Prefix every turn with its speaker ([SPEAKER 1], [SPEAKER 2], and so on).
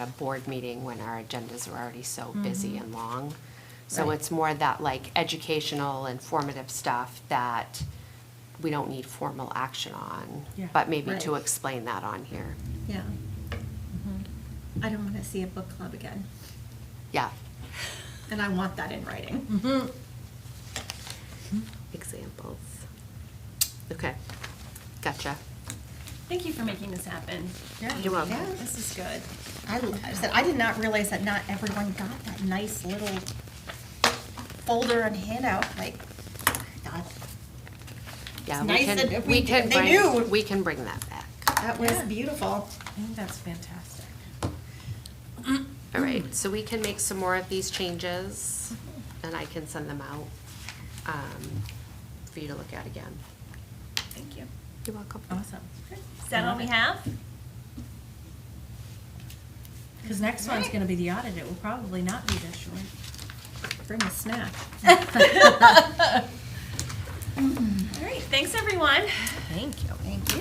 [SPEAKER 1] at a board meeting when our agendas are already so busy and long. So
[SPEAKER 2] Mm-hmm. Right.
[SPEAKER 1] it's more that like educational, informative stuff that we don't need formal action on,
[SPEAKER 3] Yeah.
[SPEAKER 1] but maybe to
[SPEAKER 2] Right.
[SPEAKER 1] explain that on here.
[SPEAKER 2] Yeah.
[SPEAKER 4] Mm-hmm.
[SPEAKER 2] I don't want to see a book club again,
[SPEAKER 1] Yeah,
[SPEAKER 2] and I want that in
[SPEAKER 4] Mm-hmm.
[SPEAKER 2] writing.
[SPEAKER 1] examples. Okay, gotcha.
[SPEAKER 4] Thank you for making this happen.
[SPEAKER 1] You're welcome.
[SPEAKER 2] Yeah.
[SPEAKER 4] This is good.
[SPEAKER 2] I, I said, I did not realize that not everyone got that nice little folder and handout, like, that,
[SPEAKER 1] Yeah,
[SPEAKER 2] It's
[SPEAKER 1] we
[SPEAKER 2] nice
[SPEAKER 1] can-
[SPEAKER 2] that
[SPEAKER 1] we
[SPEAKER 2] we-
[SPEAKER 1] can
[SPEAKER 2] they
[SPEAKER 1] bring-
[SPEAKER 2] knew.
[SPEAKER 1] We can bring that back.
[SPEAKER 2] that was
[SPEAKER 4] Yeah.
[SPEAKER 2] beautiful.
[SPEAKER 3] I think that's fantastic.
[SPEAKER 1] All
[SPEAKER 2] Mm.
[SPEAKER 1] right, so we can make some more of these changes, and I can send them out um, for you to look at again.
[SPEAKER 4] Thank you.
[SPEAKER 1] You're welcome.
[SPEAKER 3] Awesome.
[SPEAKER 4] Is that all we have?
[SPEAKER 3] Because next one's gonna be the audit, it will probably not be this short.
[SPEAKER 2] Bring a snack.
[SPEAKER 4] All right, thanks, everyone.
[SPEAKER 3] Thank you.
[SPEAKER 2] Thank